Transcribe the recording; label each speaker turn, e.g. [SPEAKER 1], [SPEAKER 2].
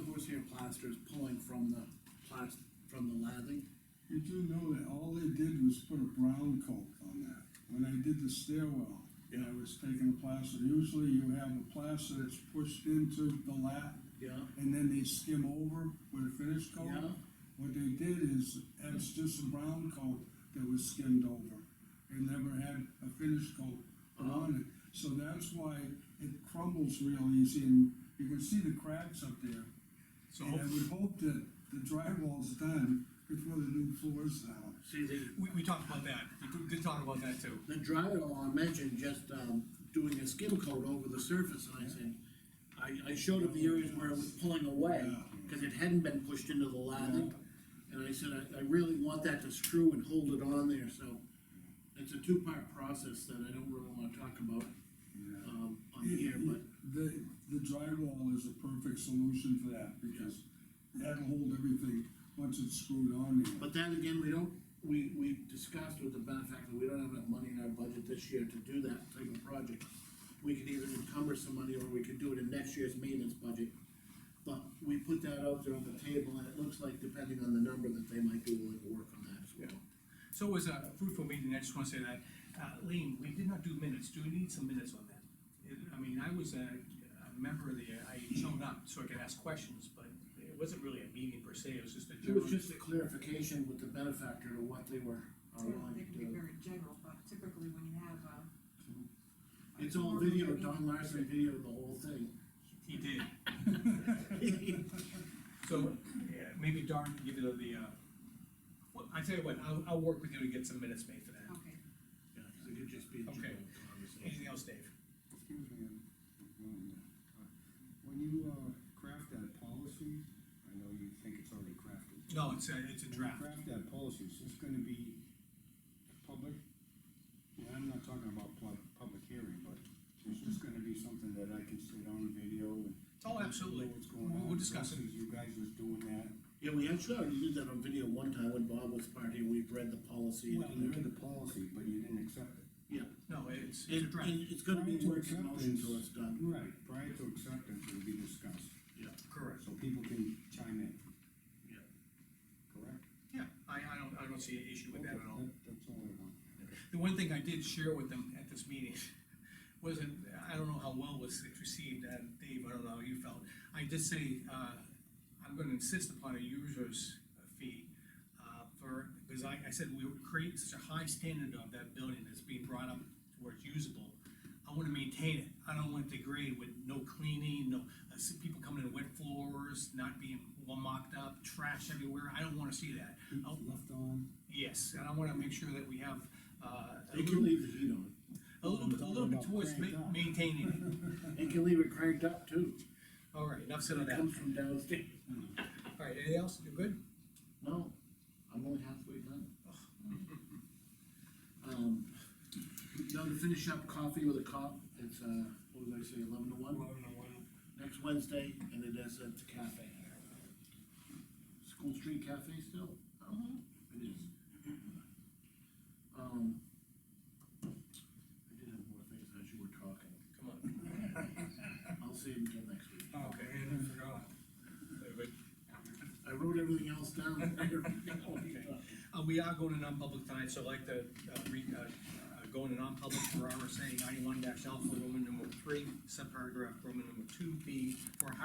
[SPEAKER 1] concrete plaster is pulling from the plas, from the lathing.
[SPEAKER 2] You do know that all they did was put a brown coat on that. When I did the stairwell, and I was taking a plaster, usually you have a plaster that's pushed into the lap,
[SPEAKER 1] Yeah.
[SPEAKER 2] and then they skim over with a finish coat.
[SPEAKER 1] Yeah.
[SPEAKER 2] What they did is, it's just a brown coat that was skimmed over, and never had a finish coat put on it. So that's why it crumbles real easy, and you can see the cracks up there.
[SPEAKER 3] So
[SPEAKER 2] And I would hope that the drywall's done before the new floor's down.
[SPEAKER 1] See, the,
[SPEAKER 3] we, we talked about that, we did- did talk about that too.
[SPEAKER 1] the drywall, I mentioned just, um, doing a skim coat over the surface, and I said, I, I showed him the areas where it was pulling away,
[SPEAKER 2] Yeah.
[SPEAKER 1] cause it hadn't been pushed into the lathing. And I said, I, I really want that to screw and hold it on there, so it's a two-part process that I don't really wanna talk about, um, on here, but
[SPEAKER 2] The, the drywall is a perfect solution for that, because that'll hold everything once it's screwed on there.
[SPEAKER 1] But then again, we don't, we, we discussed with the benefactor, we don't have enough money in our budget this year to do that type of project. We could either encumber some money or we could do it in next year's maintenance budget. But we put that out there on the table and it looks like depending on the number that they might be willing to work on that as well.
[SPEAKER 3] So it was a fruitful meeting, I just wanna say that, uh, Lean, we did not do minutes, do we need some minutes on that? It- I mean, I was a, a member of the, I showed up so I could ask questions, but it wasn't really a meeting per se, it was just a
[SPEAKER 1] It
[SPEAKER 3] general.
[SPEAKER 1] was just a clarification with the benefactor to what they were are willing
[SPEAKER 4] They
[SPEAKER 1] to
[SPEAKER 4] can be
[SPEAKER 1] Oh, do.
[SPEAKER 4] very general, but typically when you have, uh.
[SPEAKER 1] It's all video, Don Larson videoed the whole thing.
[SPEAKER 3] He did, so, yeah, maybe Darren can give you the, uh, well, I tell you what, I'll, I'll work with you to get some minutes made for that.
[SPEAKER 4] Okay,
[SPEAKER 1] Yeah, so it could just be a general
[SPEAKER 3] Okay.
[SPEAKER 1] conversation.
[SPEAKER 3] Anything else, Dave?
[SPEAKER 5] Excuse me, I'm- uh, when you, uh, craft that policy, I know you think it's already crafted.
[SPEAKER 3] No, it's a, it's a
[SPEAKER 5] When you
[SPEAKER 3] draft.
[SPEAKER 5] Craft that policy, is this gonna be public? Yeah, I'm not talking about pub, public hearing, but is this gonna be something that I can sit on video and?
[SPEAKER 3] Oh, absolutely.
[SPEAKER 5] Know what's going
[SPEAKER 3] We'll
[SPEAKER 5] on?
[SPEAKER 3] we'll discuss it.
[SPEAKER 5] versus You guys was doing that.
[SPEAKER 1] Yeah, we actually already did that on video one time when Bob was part here, we've read the policy.
[SPEAKER 5] Well, you read the policy, but you didn't accept it.
[SPEAKER 1] Yeah,
[SPEAKER 3] No, it's, it's a
[SPEAKER 1] it,
[SPEAKER 3] draft.
[SPEAKER 1] it- it's gonna be
[SPEAKER 5] Prior to
[SPEAKER 1] work in motion
[SPEAKER 5] acceptance-
[SPEAKER 1] till it's done,
[SPEAKER 5] Right, prior to acceptance, it'll be discussed,
[SPEAKER 1] yeah,
[SPEAKER 3] Correct.
[SPEAKER 5] so people can chime in,
[SPEAKER 1] yeah.
[SPEAKER 5] correct?
[SPEAKER 3] Yeah, I, I don't, I don't see an issue with that at
[SPEAKER 5] Okay,
[SPEAKER 3] all.
[SPEAKER 5] that- That's all I want.
[SPEAKER 3] The one thing I did share with them at this meeting wasn't, I don't know how well was it received, uh, Dave, I don't know how you felt. I did say, uh, I'm gonna insist upon a user's fee, uh, for, because I, I said we would create such a high standard of that building that's being brought up to where it's usable. I wanna maintain it, I don't want to degrade with no cleaning, no, I see people coming in wet floors, not being well mocked up, trash everywhere, I don't wanna see that.
[SPEAKER 5] Heat
[SPEAKER 3] Oh.
[SPEAKER 5] left on.
[SPEAKER 3] Yes, and I wanna make sure that we have, uh. a
[SPEAKER 1] It
[SPEAKER 3] little-
[SPEAKER 1] can leave the heat on,
[SPEAKER 3] a little bit, a little bit towards ma-
[SPEAKER 5] Cranked up.
[SPEAKER 3] maintaining
[SPEAKER 1] it can leave it cranked up too,
[SPEAKER 3] it. All right, enough said on
[SPEAKER 1] it
[SPEAKER 3] that.
[SPEAKER 1] comes from downstairs.
[SPEAKER 3] All right, anything else? You're good?
[SPEAKER 1] No, I'm only halfway done. Um, now to finish up coffee with a cop, it's, uh, what did I say, eleven to one? Next Wednesday, and it is at the cafe. School Street Cafe still? It is. Um, I did have more things as you were talking,
[SPEAKER 3] Come on.
[SPEAKER 1] I'll see you again next week.
[SPEAKER 3] Okay, I forgot.
[SPEAKER 1] I wrote everything else down.
[SPEAKER 3] Uh, we are going to non-public tonight, so I'd like to, uh, read, uh, uh, go into non-public for RSA ninety-one dash alpha, Roman number three, subparagraph, Roman number two B, for